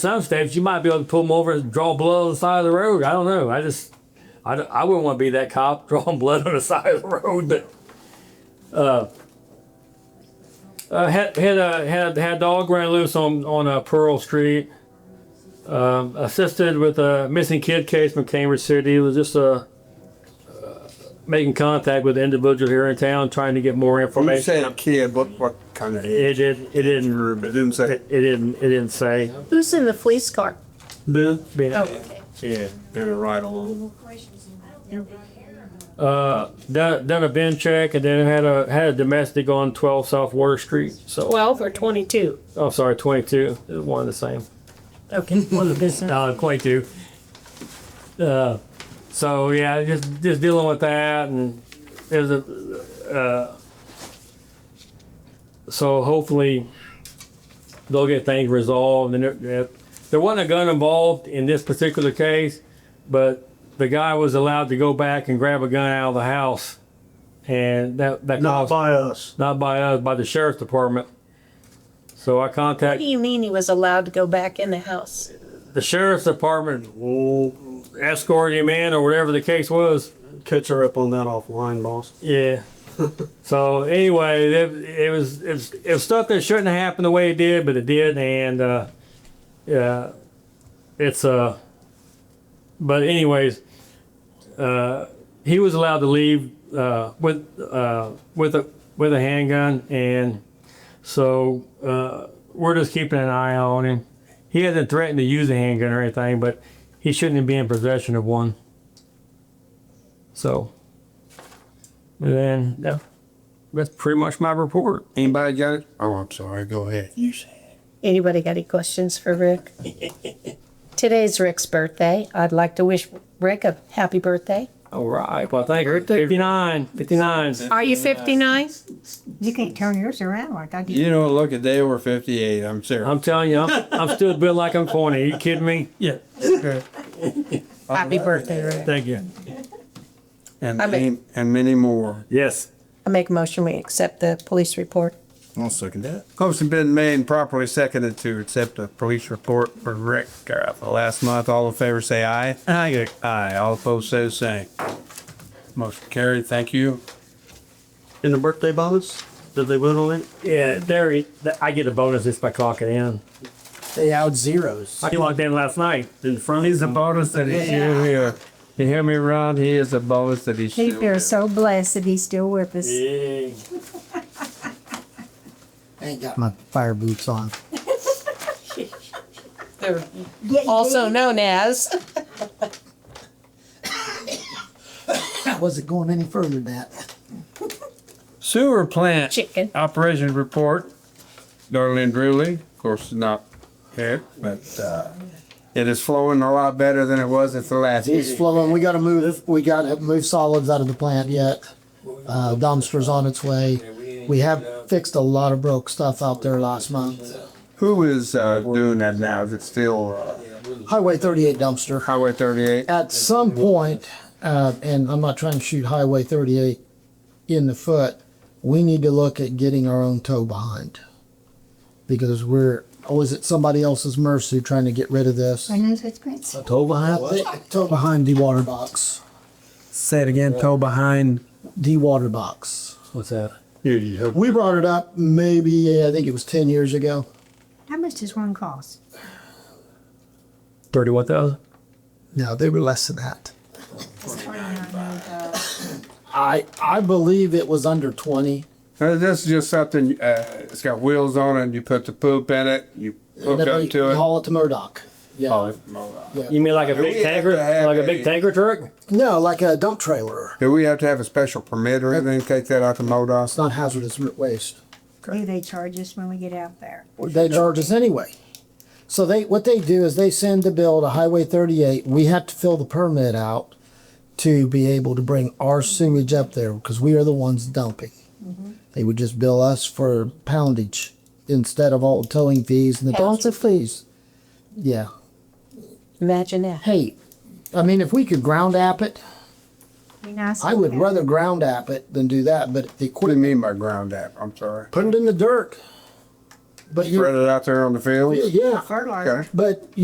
some states you might be able to pull them over and draw blood on the side of the road. I don't know. I just, I, don't- I wouldn't want to be that cop drawing blood on the side of the road. But uh, uh, had had a had had dog ran loose on on uh, Pearl Street. Um, assisted with a missing kid case from Cambridge City. It was just a. Uh, Making contact with the individual here in town, trying to get more You information. say a kid, what, what kind of age? It didn't. It It didn't. didn't say. It didn't. It didn't say. Who's in the police car? Been? Oh, Being- okay. Yeah, been a ride along. Uh, done, done a bin check and then had a had a domestic on 12 South Water Street. So, Twelve or twenty-two? oh, sorry, 22. It was one of the same. Okay, one of the business. No, 22. Uh, so yeah, just just dealing with that, and there's a. Uh, so hopefully, they'll get things resolved, and there, there wasn't a gun involved in this particular case, but the guy was allowed to go back and grab a gun out of the house, and that that caused, Not by us. not by us by the sheriff's department. So I What do contacted you mean he was allowed to go back in the house? the sheriff's department will escort him in or whatever the case was. Catch her up on that offline, boss. Yeah. so anyway, it, it was it's it was stuff that shouldn't have happened the way it did, but it did, and uh, yeah, it's uh. But anyways, uh, he was allowed to leave uh, with uh, with a with a handgun, and so uh, we're just keeping an eye on him. He hasn't threatened to use a handgun or anything, but he shouldn't be in possession of one. So. And then yeah, that's pretty much my report. Anybody got it? Oh, I'm sorry, go ahead. You say. Anybody got any questions for Rick? Today's Rick's birthday. I'd like to wish Rick a happy birthday. All right. Well, thank you. 59, 59. Are you fifty-nine? You can't turn yours around like I did. You don't look a day over fifty-eight, I'm serious. I'm telling you, I'm, I'm still built like I'm 40. Are you kidding me? Yeah. Happy birthday, Rick. Thank you. And, I'm a- aim- and many more. Yes. I make a motion, we accept the police report. I'll second that. Motion been made and properly seconded to accept the police report for Rick Garrett for last month. All in favor say aye. Aye. Aye. All opposed say the same. Motion carried. Thank you. In the birthday bonus, did they vote on it? Yeah, there. he- th- I get a bonus just by clocking in. They out zeros. I clocked in last night. In front? He's a bonus that he's still here. You hear me, Ron? He is a bonus that he's We still are here. so blessed that he's still with us. Yeah. I ain't got my fire boots on. They're also known as. I wasn't going any further than that. Sewer plant Chicken. operation report. Darlene Drewley, of course, is not here, but uh, it is flowing a lot better than it was at the last. It's flowing. We gotta move, we gotta move solids out of the plant yet. Uh, dumpster's on its way. We have fixed a lot of broke stuff out there last month. Who is uh, doing that now? Is it still uh, Highway thirty-eight dumpster. Highway 38? At some point, uh, and I'm not trying to shoot Highway thirty-eight in the foot, we need to look at getting our own tow behind. Because we're always at somebody else's mercy trying to get rid of this. I know it's Prince. Toe behind, toe behind the water box. Say it again, toe behind. The water box. What's that? We brought it up maybe, I think it was 10 years ago. How much does one cost? 31,000? No, they were less than that. It's $49. I, I believe it was under 20. Uh, This is just something, uh, it's got wheels on it, you put the poop in it, you hook And then up we to it. Haul it to Murdoch. Yeah. Oh, it- You mean like a We big have to tanker? have Like a big a- tanker truck? No, like a dump trailer. Do we have to have a special permit or anything, to take that out to It's MoDOT? not hazardous waste. Do they charge us when we get out there? They charge us anyway. So they, what they do is they send the bill to Highway 38. We have to fill the permit out to be able to bring our sewage up there because we are the ones dumping. They would just bill us for poundage instead of all the towing fees and the Poundage. dumpster fees. Yeah. Imagine that. Hey, I mean, if we could ground app it, Be nice. I would to- rather ground app it than do that, but the What do equipment, you mean by ground app? I'm sorry. put it in the dirt. But Spread you, it out there on the fields? yeah, fertilizer. Okay. but